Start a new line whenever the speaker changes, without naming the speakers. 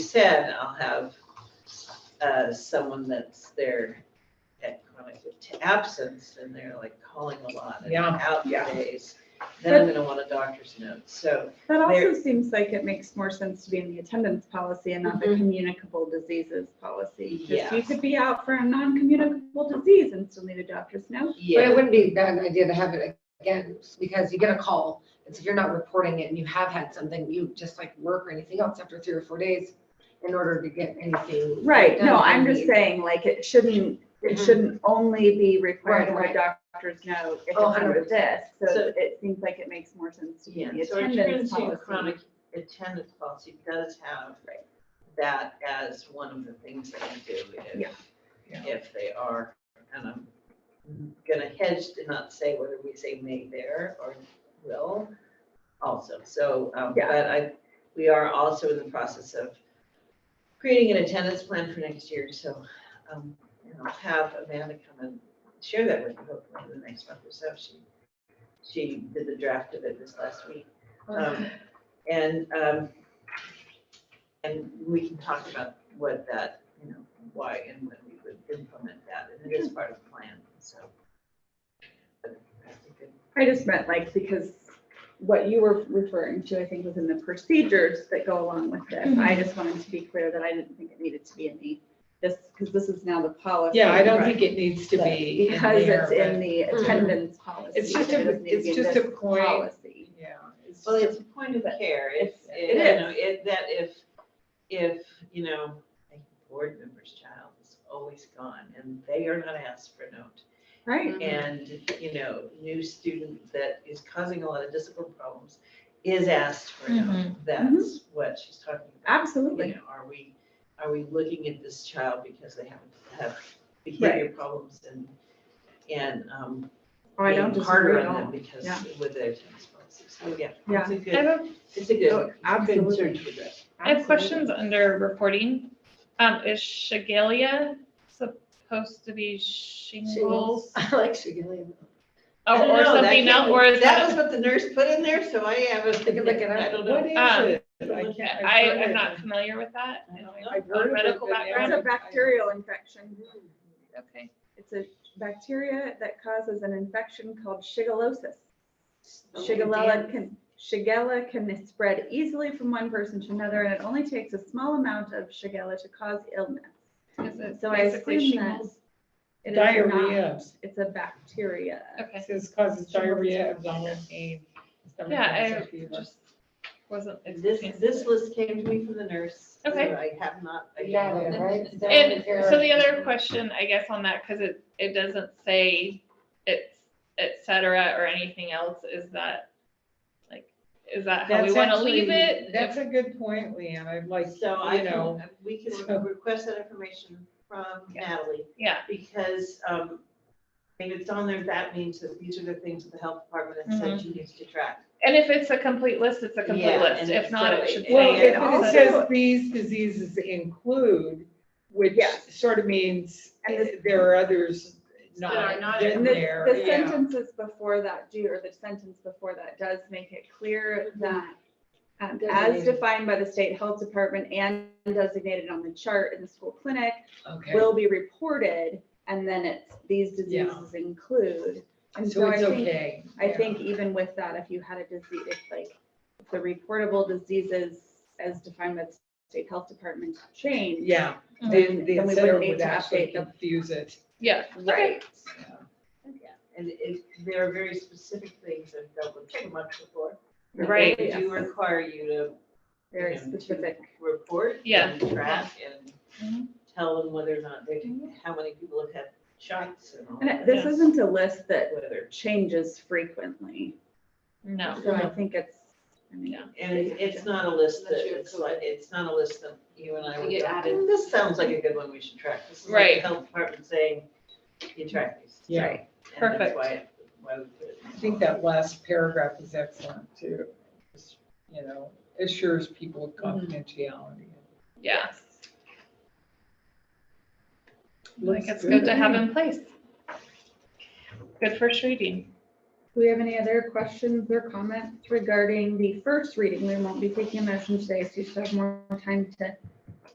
said, I'll have uh, someone that's there at chronic absence and they're like calling a lot and
Yeah,
out for
yeah.
days. Then I'm gonna want a doctor's note, so,
That
There-
also seems like it makes more sense to be in the attendance policy and not the
Mhm.
communicable diseases policy. Because you
Yes.
could be out for a non-communicable disease and still need a doctor's note.
But it
yeah,
wouldn't be a bad idea to have it again, because you get a call, it's if you're not reporting it and you have had something, you just like work or anything else after three or four days in order to get anything.
Right, no,
done,
I'm
you
just
need-
saying, like, it shouldn't, it
Mhm.
shouldn't only be required to
Right,
have a doctor's note if it's
Oh,
under this. So
100%.
it seems like it makes more sense to be in the
yeah. So our
attendance
truancy and
policy.
chronic attendance policy does have that as one of the things that we do
Yeah.
if, if they are. And I'm gonna hedge to not say whether we say may there or will also. So, um,
Yeah.
but I, we are also in the process of creating an attendance plan for next year. So, um, and I'll have Amanda come and share that with you hopefully in the next month or so. She, she did the draft of it this last week. Um, And, um, and we can talk about what that, you know, why and when we would implement that. And it is part of the plan, so. But that's a good-
I just meant like, because what you were referring to, I think, was in the procedures that go along with
Mm-hmm.
this. I just wanted to be clear that I didn't think it needed to be in the, this, because this is now the policy.
Yeah, I don't
Right.
think it needs to be in
Because
there,
it's in
but-
the
Mhm.
attendance policy.
It's just
so it
a,
doesn't need to
it's
be in
just
this
a point,
Policy.
yeah. it's
Well,
just-
it's a point of care. It's,
It
it- you know, it, that if, if, you know, a board member's child is always gone and they are not asked for a note.
Right.
and, you know, new student that is causing a lot of discipline problems is asked for help. That's what she's talking about. You
Absolutely.
know, are we, are we looking at this child because they haven't have behavior problems and, and, um,
Oh, I don't
being
disagree
harder
at
on them
all.
because
Yeah.
with their tennis policy. So, yeah,
Yeah.
it's a
I have
good,
a,
it's a
Oh,
good, good
absolutely.
search for that.
I have questions under reporting. Um, is Shigalia supposed to be shingles?
I like Shigellia.
I
Oh,
don't
Or
know, that
something
can't-
else, or is
That was
that?
what the nurse put in there, so I haven't,
They could look it up.
I don't know.
What is
Um,
it? I
Okay,
can't-
I,
I've heard
I'm
it.
not familiar with that.
I don't know.
I've heard of it,
medical
but I
background.
It's
haven't-
a bacterial infection.
Okay.
It's a bacteria that causes an infection called shigellosis. Shigella can, Shigella can spread easily from one person to another, and it only takes a small amount of Shigella to cause illness.
Is it
So I
basically
assume that.
shingles?
it is
Diarrhea,
not- It's a bacteria.
Okay,
It says causes diarrhea, abdominal pain. stomach
Yeah,
upset,
I
fever.
just wasn't.
This,
expecting
this
it.
list came to me from the nurse. so
Okay.
I have not. I
You got
don't
it,
know.
right? So
And
if you're-
so the other question, I guess, on that, because it, it doesn't say it's et cetera or anything else, is that like, is that how we
That's
want to leave
actually-
it?
That's a good point, Leanne. I'd like,
So I
you know,
can, we
so-
can request that information from
Yeah.
Natalie,
Yeah,
because, um, if it's on there, that means that these are the things that the health department has said she needs to track.
and if it's a complete list, it's a complete
Yeah,
list.
and
If
it's
not,
so-
it should
well,
say.
it
if
it's
it
also-
a-
says these diseases include, which
Yes.
sort of means eh,
And this-
there are others
That
not
are not
in
And the,
there.
the
yeah.
sentences before that do, or the sentence before that does make it clear that um, as
Designated.
defined by the state health department and designated on the chart in the school clinic,
Okay.
will be reported, and then it's, these diseases include. And
So
so I
it's
think,
okay.
I
yeah.
think even with that, if you had a disease, if like, if the reportable diseases as defined by the state health department change.
Yeah,
Mhm.
then the
Then we
center
wouldn't need
would
to
actually
update them.
confuse it.
Yeah.
Right.
And it, there are very specific things that I've dealt with so much before.
Right.
They do require you to.
Very
you know, to
specific.
Report.
Yeah.
and Track and
Mhm.
tell them whether or not they, how many people have had shots and all.
And
that.
it- this isn't a list that
Whether
changes frequently.
No.
So I think it's, I mean,
Yeah.
And it- it's not a list
Unless
that,
you
it's
approve
like, it's not a list that you and I
To
would
get
go,
added.
"Hmm, this sounds like a good one we should track. This is like the
Right.
Health department saying, you track these.
Yeah.
Right.
And that's
Perfect.
why it- why we put it in
I think that last paragraph is excellent too. Just, You know, assures people of
Mm-hmm.
confidentiality.
Yeah. Like
Looks
it's good to
good.
have in place. Good first reading.
Do we have any other questions or comments regarding the first reading? We won't be taking a motion today, so you should have more time to